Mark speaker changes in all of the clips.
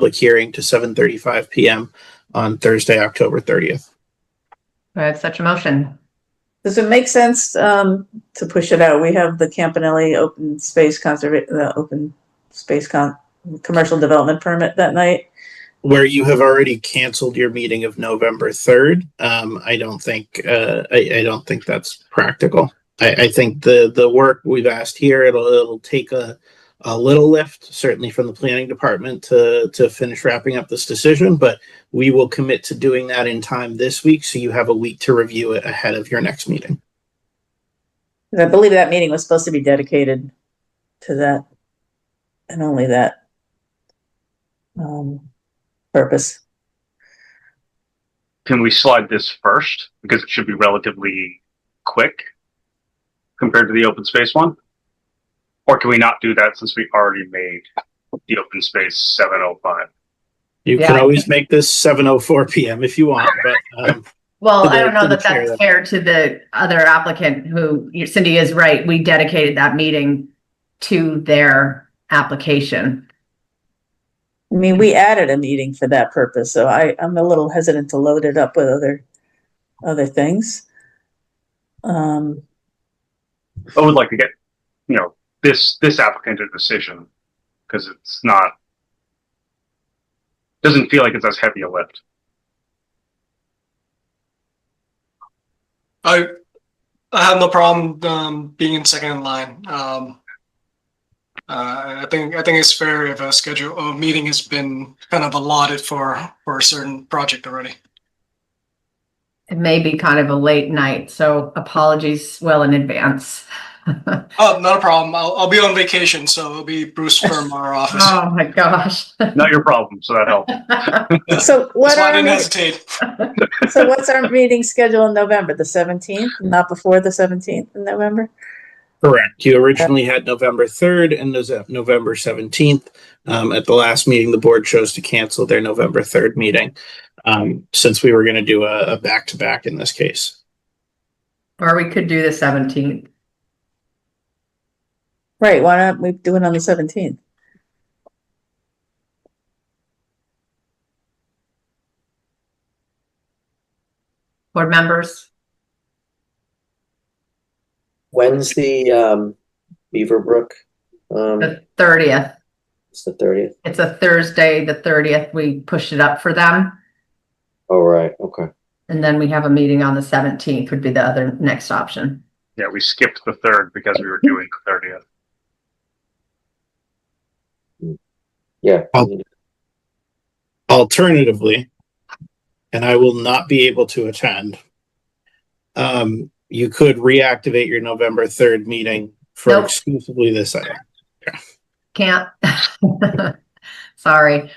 Speaker 1: public hearing to 7:35 PM on Thursday, October 30th.
Speaker 2: Do I have such a motion?
Speaker 3: Does it make sense um, to push it out? We have the Campanelli Open Space Conserva, the Open Space Con, Commercial Development Permit that night.
Speaker 1: Where you have already canceled your meeting of November 3rd, um, I don't think, uh, I, I don't think that's practical. I, I think the, the work we've asked here, it'll, it'll take a, a little lift, certainly from the planning department to, to finish wrapping up this decision, but we will commit to doing that in time this week, so you have a week to review it ahead of your next meeting.
Speaker 3: 'Cause I believe that meeting was supposed to be dedicated to that and only that um, purpose.
Speaker 4: Can we slide this first? Because it should be relatively quick compared to the open space one? Or can we not do that since we already made the open space seven oh five?
Speaker 1: You
Speaker 2: Yeah,
Speaker 1: can
Speaker 2: I
Speaker 1: always make this 7:04 PM if you want, but, um,
Speaker 2: Well, I
Speaker 1: Yeah,
Speaker 2: don't know that
Speaker 1: didn't share
Speaker 2: that's fair to the other applicant who, Cindy is right, we dedicated that meeting to their application.
Speaker 3: I mean, we added a meeting for that purpose, so I, I'm a little hesitant to load it up with other, other things. Um,
Speaker 4: I would like to get, you know, this, this applicant a decision, because it's not, doesn't feel like it's as heavy a lift.
Speaker 5: I I have no problem um, being in second in line. Um, uh, I think I think it's fair if a schedule a meeting has been kind of allotted for for a certain project already.
Speaker 2: It may be kind of a late night, so apologies well in advance.
Speaker 5: Oh, not a problem. I'll, I'll be on vacation, so it'll be Bruce from our office.
Speaker 2: Oh, my gosh.
Speaker 4: Not your problem, so that helps.
Speaker 3: so what
Speaker 5: That's why I
Speaker 3: are,
Speaker 5: didn't
Speaker 3: we-
Speaker 5: hesitate.
Speaker 3: so what's our meeting schedule in November, the seventeenth, not before the seventeenth in November?
Speaker 1: Correct. You originally had November 3rd and those at November 17th. Um, at the last meeting, the board chose to cancel their November 3rd meeting um, since we were going to do a, a back-to-back in this case.
Speaker 2: Or we could do the seventeenth.
Speaker 3: Right, why don't we do it on the seventeenth?
Speaker 2: Board members,
Speaker 6: When's the um Beaverbrook? Um,
Speaker 2: the thirtieth.
Speaker 6: it's the thirtieth.
Speaker 2: It's a Thursday, the thirtieth. We pushed it up for them.
Speaker 6: Oh, right, okay.
Speaker 2: And then we have a meeting on the seventeenth would be the other next option.
Speaker 4: Yeah, we skipped the third because we were doing the thirtieth.
Speaker 6: Yeah.
Speaker 1: Oh. Alternatively, and I will not be able to attend, um, you could reactivate your November 3rd meeting for
Speaker 2: Nope.
Speaker 1: exclusively this item.
Speaker 2: Can't. Sorry.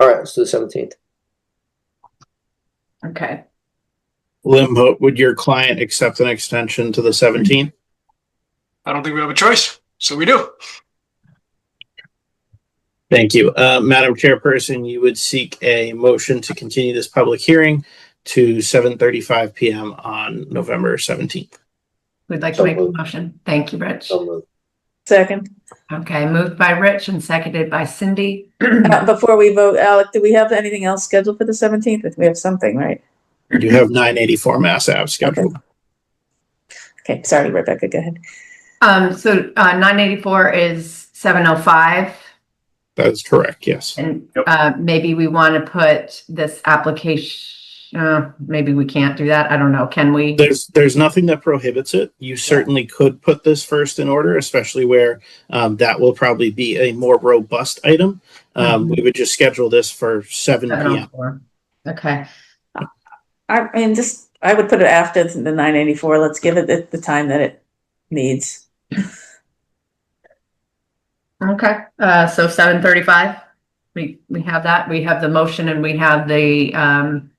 Speaker 6: All right, let's do the seventeenth.
Speaker 2: Okay.
Speaker 1: Limbo, would your client accept an extension to the 17th?
Speaker 5: I don't think we have a choice, so we do.
Speaker 1: Thank you. Uh, Madam Chairperson, you would seek a motion to continue this public hearing to seven thirty-five PM on November seventeenth.
Speaker 2: We'd like to
Speaker 6: So
Speaker 2: make a
Speaker 6: moved.
Speaker 2: motion. Thank you, Rich.
Speaker 6: So moved.
Speaker 3: Second,
Speaker 2: Okay, moved by Rich and seconded by Cindy.
Speaker 3: Uh, before we vote, Alec, do we have anything else scheduled for the seventeenth? We have something, right?
Speaker 1: You have nine eighty-four Mass Ave scheduled.
Speaker 3: Okay, sorry, Rebecca, go ahead.
Speaker 2: Um, so, uh, nine eighty-four is seven oh five.
Speaker 1: That is correct, yes.
Speaker 2: And
Speaker 4: Yep.
Speaker 2: uh, maybe we want to put this application, uh, maybe we can't do that. I don't know. Can we?
Speaker 1: There's, there's nothing that prohibits it. You certainly could put this first in order, especially where um, that will probably be a more robust item. Um, We would just schedule this for seven PM.
Speaker 2: 7:04. Okay,
Speaker 3: I mean, just, I would put it after the nine eighty-four. Let's give it the, the time that it needs.
Speaker 2: okay. Uh, so seven thirty-five. We, we have that. We have the motion and we have the, um,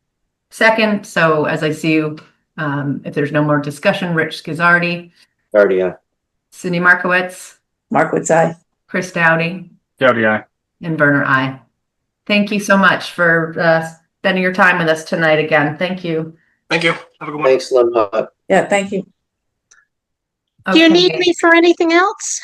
Speaker 2: second. So as I see you, um, if there's no more discussion, Rich Gizardi,
Speaker 6: Already, uh,
Speaker 2: Cindy Markowitz,
Speaker 3: Mark, what's I?
Speaker 2: Chris Dowdy,
Speaker 4: Dowdy, aye.
Speaker 2: and Werner I. Thank you so much for, uh, spending your time with us tonight again. Thank you.
Speaker 5: Thank you. Have a good one.
Speaker 6: thanks, Lemon.
Speaker 3: Yeah, thank you.
Speaker 7: Do you need
Speaker 2: Okay.
Speaker 7: me for anything else?